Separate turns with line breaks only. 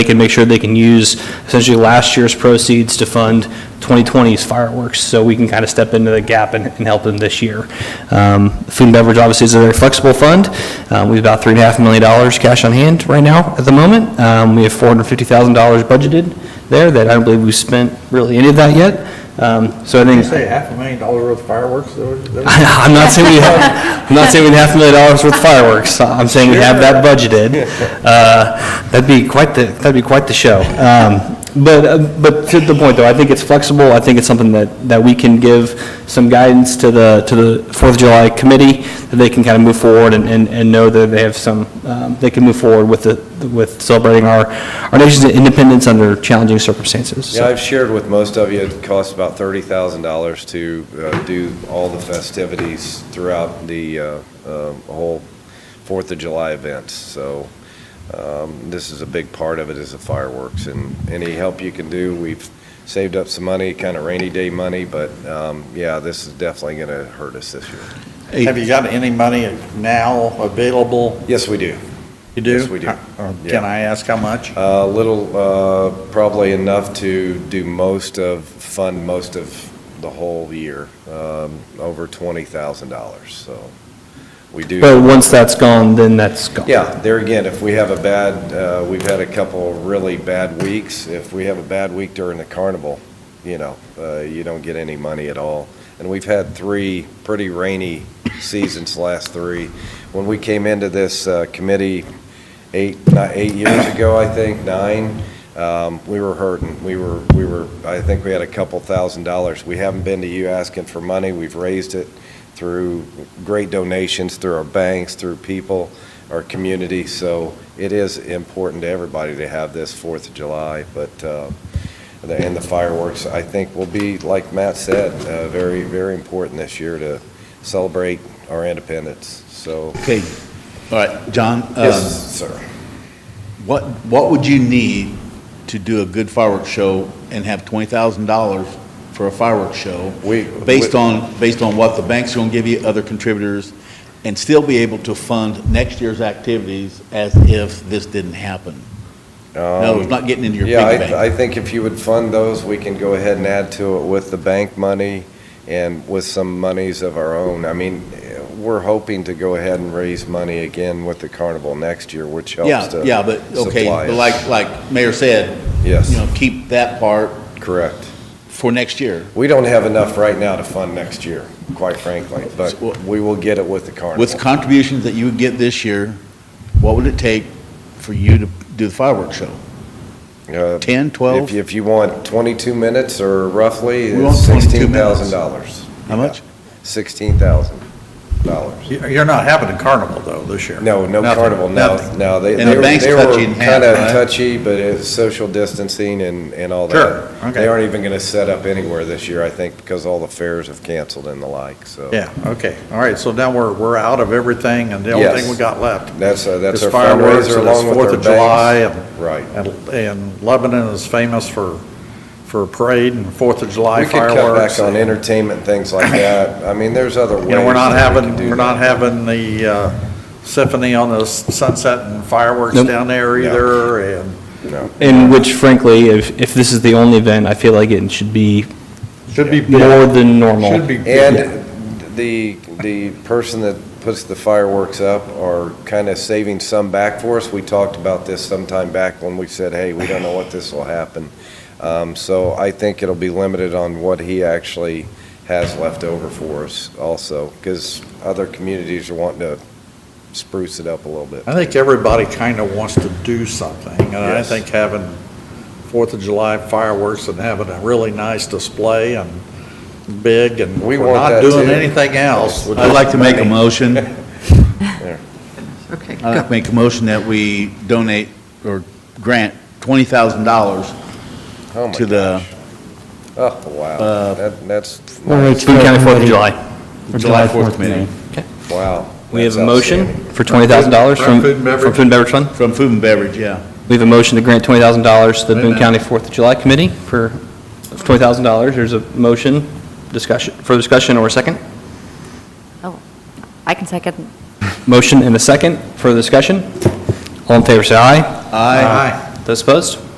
they can make sure they can use essentially last year's proceeds to fund 2020's fireworks, so we can kind of step into the gap and, and help them this year. Um, Food and beverage obviously is a very flexible fund. Uh, we have about three and a half million dollars cash on hand right now at the moment. Um, we have four hundred fifty thousand dollars budgeted there that I don't believe we've spent really any of that yet. Um, so I think.
You say half a million dollar worth of fireworks? that was- that was-
I'm not saying we have, I'm not saying we have half a million dollars worth of fireworks. I'm saying we have that budgeted. Uh, That'd be quite the, that'd be quite the show. Um, But, uh, but to the point, though, I think it's flexible. I think it's something that, that we can give some guidance to the, to the Fourth of July committee, that they can kind of move forward and, and and know that they have some, um, they can move forward with the, with celebrating our, our nation's independence under challenging circumstances. So-
Yeah, I've shared with most of you, it costs about $30,000 to uh, do all the festivities throughout the uh, um, whole Fourth of July event. So um, this is a big part of it is the fireworks. And any help you can do, we've saved up some money, kind of rainy day money, but um, yeah, this is definitely going to hurt us this year.
Have you got any money now available?
Yes, we do.
You do?
Yes, we do.
Uh, Can
Yeah.
I ask how much?
A little, uh, probably enough to do most of, fund most of the whole year, um, over $20,000, so we do.
But once that's gone, then that's gone.
Yeah, there again, if we have a bad, uh, we've had a couple really bad weeks, if we have a bad week during the carnival, you know, uh, you don't get any money at all. And we've had three pretty rainy seasons, last three. When we came into this uh, committee eight, ni- eight years ago, I think, nine, um, we were hurting. We were, we were, I think we had a couple thousand dollars. We haven't been to you asking for money. We've raised it through great donations, through our banks, through people, our community. So it is important to everybody to have this Fourth of July, but, uh, the- and the fireworks, I think, will be, like Matt said, uh, very, very important this year to celebrate our independence. So,
Okay, all right, John. um,
yes, sir.
What, what would you need to do a good fireworks show and have $20,000 for a fireworks show?
We-
Based
we-
on, based on what the bank's going to give you, other contributors, and still be able to fund next year's activities as if this didn't happen? No, it's not getting into your piggy
um, Yeah,
bank.
I, I think if you would fund those, we can go ahead and add to it with the bank money and with some monies of our own. I mean, eh, we're hoping to go ahead and raise money again with the carnival next year, which helps
Yeah,
to.
yeah, but, okay,
supply
but
us.
like, like Mayor said, you
Yes,
know, keep that part
correct.
for next year.
We don't have enough right now to fund next year, quite frankly, but we will get it with the
With
carnival.
contributions that you would get this year, what would it take for you to do the fireworks show?
Uh,
10,
If,
12?
if you want twenty-two minutes or roughly,
We want
it's
22
sixteen
minutes.
thousand dollars.
How much?
Sixteen thousand dollars.
You- You're not having a carnival, though, this year?
No, no
Nothing,
carnival, no,
nothing.
no. They
And the
they were-
bank's
they were
touchy in half,
Kinda
right?
touchy, but it's social distancing and, and all that.
Sure, okay.
They aren't even gonna set up anywhere this year, I think, because all the fairs have canceled and the like, so.
Yeah, okay. All right, so now we're, we're out of everything, and the only thing
Yes.
we got left
That's, uh, that's
is
our
fireworks,
fundraiser
and it's
along with
Fourth
our
of July,
banks.
and,
Right.
and- and Lebanon is famous for, for a parade and Fourth of July
We could cut back
fireworks.
on entertainment, and things like that. I mean, there's other ways.
You know, we're not
that we
having,
can do
we're
that.
not having the uh, symphony on the s- sunset and fireworks
Nope.
down there
No.
either, and
No.
In which frankly, if, if this is the only event, I feel like it should be
should be.
more than normal.
Should be.
And the, the person that puts the fireworks up are kind of saving some back for us. We talked about this sometime back when we said, hey, we don't know what this will happen. Um, So I think it'll be limited on what he actually has left over for us also, because other communities are wanting to spruce it up a little bit.
I think everybody kind of wants to do something, and I
Yes.
think having Fourth of July fireworks and having a really nice display and big, and
We
we're
want
not
that,
doing
too.
anything else.
Yes.
I'd like to make a motion.
Okay,
I'd like to
go.
make a motion that we donate or grant $20,000
Oh, my
to the
gosh. Oh,
uh,
wow. That, that's,
Boone County Fourth of July.
July 4th committee
wow.
We have
That's
a motion
outstanding.
for twenty thousand dollars from,
From food and beverage.
from Food and Beverage Fund.
from Food and Beverage, yeah.
We have a motion to grant twenty thousand dollars to the Boone County Fourth of July Committee for twenty thousand dollars. There's a motion, discussion, for discussion or a second?
I can second.
Motion and a second for the discussion. All in favor, say aye.
Aye.
Aye.
Those Those opposed?